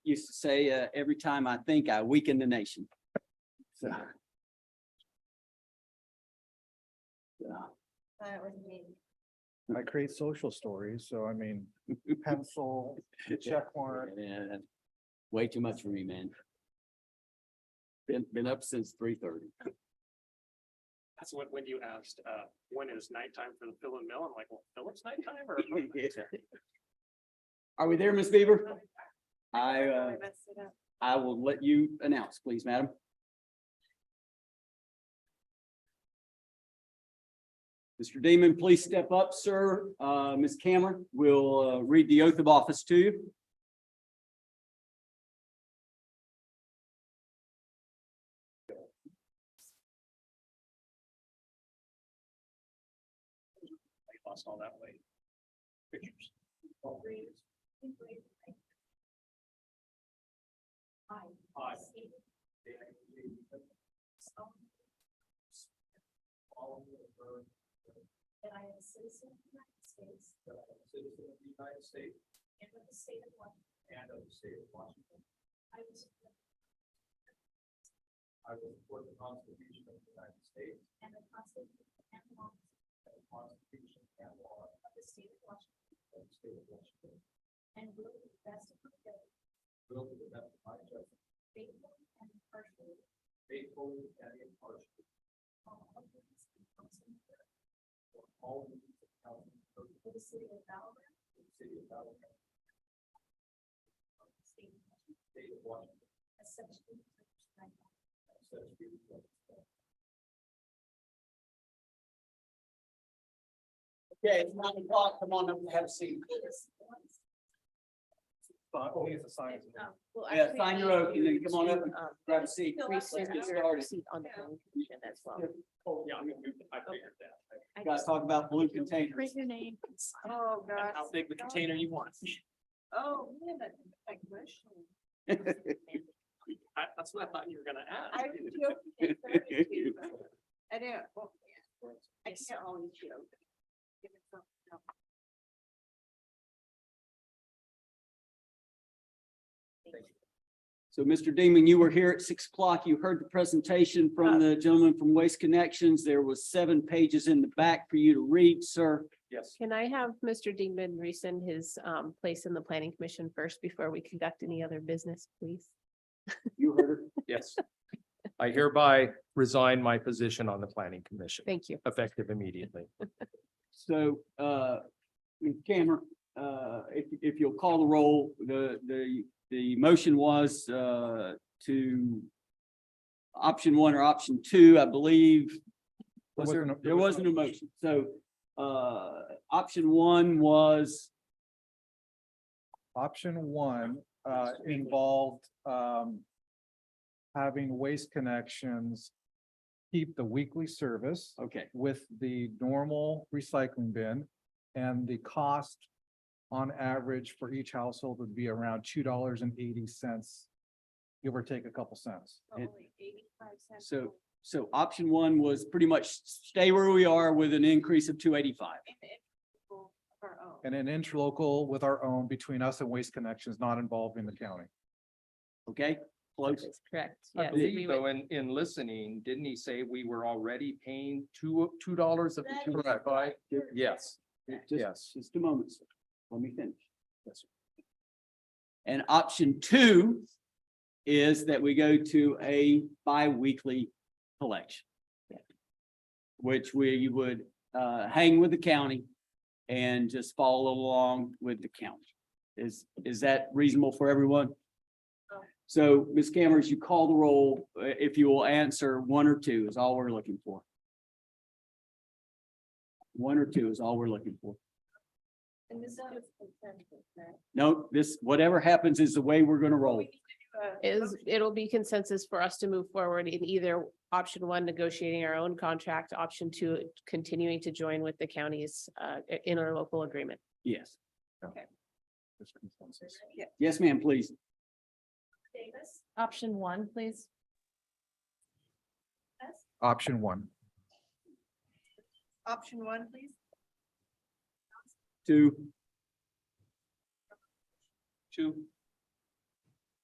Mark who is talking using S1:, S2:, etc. S1: used to say, uh, every time I think I weaken the nation. So. So,
S2: That was me.
S3: I create social stories, so I mean, pencil, check mark.
S1: yeah, Way too much for me, man. Been, been up since three thirty.
S4: That's what, when you asked, uh, when is nighttime for the fill and mill? I'm like, well, Phillips nighttime or?
S1: Are we there, Ms. Beaver? I, uh,
S2: I messed it up.
S1: I will let you announce, please, madam. Mr. Demon, please step up, sir. Uh, Ms. Cameron will uh, read the oath of office to you.
S4: Lost all that weight. Pictures. Aye.
S2: That I am a citizen of the United States
S4: That I am a citizen of the United States
S2: and of the state of Washington.
S4: and of the state of Washington.
S2: I will support
S4: I will support the Constitution of the United States
S2: And the Constitution and laws
S4: and the Constitution and law
S2: of the state of Washington
S4: of the state of Washington.
S2: and will to the best of my ability
S4: Will to the best of my judgment
S2: faithfully and impartially
S4: faithfully and impartially
S2: perform all duties of council member
S4: for all the needs of the county of
S2: for the city of Bower,
S4: the city of Alabama,
S2: state of Washington,
S4: state of Washington,
S2: as such duties are prescribed by
S4: and such duties as
S1: Okay, it's nine o'clock. Come on up and have a seat.
S2: Yes. once.
S3: Oh, he's a
S2: And,
S3: science.
S2: um, well,
S1: Yeah,
S2: actually,
S1: sign your
S2: I
S1: oath and then
S2: do
S1: come on up
S2: to,
S1: and
S2: um,
S1: Grab a seat.
S2: fill out
S1: Let's
S2: the
S1: get
S2: application
S1: started.
S2: On the
S5: Yeah.
S2: commission as well.
S4: Yeah, I'm gonna move, I figured that.
S5: I
S1: Guys,
S5: just
S1: talk about blue containers.
S5: Print your name.
S2: Oh, gosh.
S4: How big the container you want.
S2: Oh, man, that, that question.
S4: I, that's what I thought you were gonna ask.
S2: I was joking at first, too, but I know, well, yeah, I
S5: Yes.
S2: can't always joke. Give it some- no.
S1: So Mr. Demon, you were here at six o'clock. You heard the presentation from the gentleman from Waste Connections. There was seven pages in the back for you to read, sir.
S4: Yes.
S5: Can I have Mr. Dingman rescind his um place in the planning commission first before we conduct any other business, please?
S1: You heard it.
S6: Yes. I hereby resign my position on the planning commission
S5: Thank you.
S6: effective immediately.
S1: So, uh, Cameron, uh, if, if you'll call the roll, the, the, the motion was, uh, to option one or option two, I believe. Was
S3: There
S1: there,
S3: wasn't a- there
S1: there
S3: was no
S1: wasn't a motion. So, uh, option one was,
S3: Option one, uh, involved, um, having waste connections, keep the weekly service
S1: okay,
S3: with the normal recycling bin. And the cost on average for each household would be around two dollars and eighty cents, give or take a couple cents.
S2: But
S1: It-
S2: only 85 cents
S1: so-
S2: more.
S1: so option one was pretty much stay where we are with an increase of two eighty-five.
S2: And the people of our own.
S3: And an interlocal with our own between us and Waste Connections, not involving the county.
S1: Okay, close.
S5: That's correct.
S6: I
S5: Yes, we
S6: believe
S5: would-
S6: though, in, in listening, didn't he say we were already paying two, two dollars of the
S2: That
S6: two
S2: is
S6: point five?
S2: correct.
S6: Yes,
S1: Just-
S6: yes.
S1: Just a moment, sir. Let me finish. And option two is that we go to a bi-weekly collection.
S5: Yeah.
S1: Which we would uh hang with the county and just follow along with the county. Is, is that reasonable for everyone? So, Ms. Cameron, as you call the roll, uh, if you will answer one or two is all we're looking for. One or two is all we're looking for.
S2: And this is just consensus, right?
S1: No, this, whatever happens is the way we're gonna roll.
S2: We need to do a
S5: Is,
S2: motion.
S5: it'll be consensus for us to move forward in either option one, negotiating our own contract, option two, continuing to join with the county's uh interlocal agreement.
S1: Yes.
S3: There's consensus.
S2: Yeah,
S1: Yes, ma'am, please.
S2: Davis,
S5: Option one, please.
S2: yes?
S3: Option one.
S2: Option one, please.
S1: Two,
S4: Two.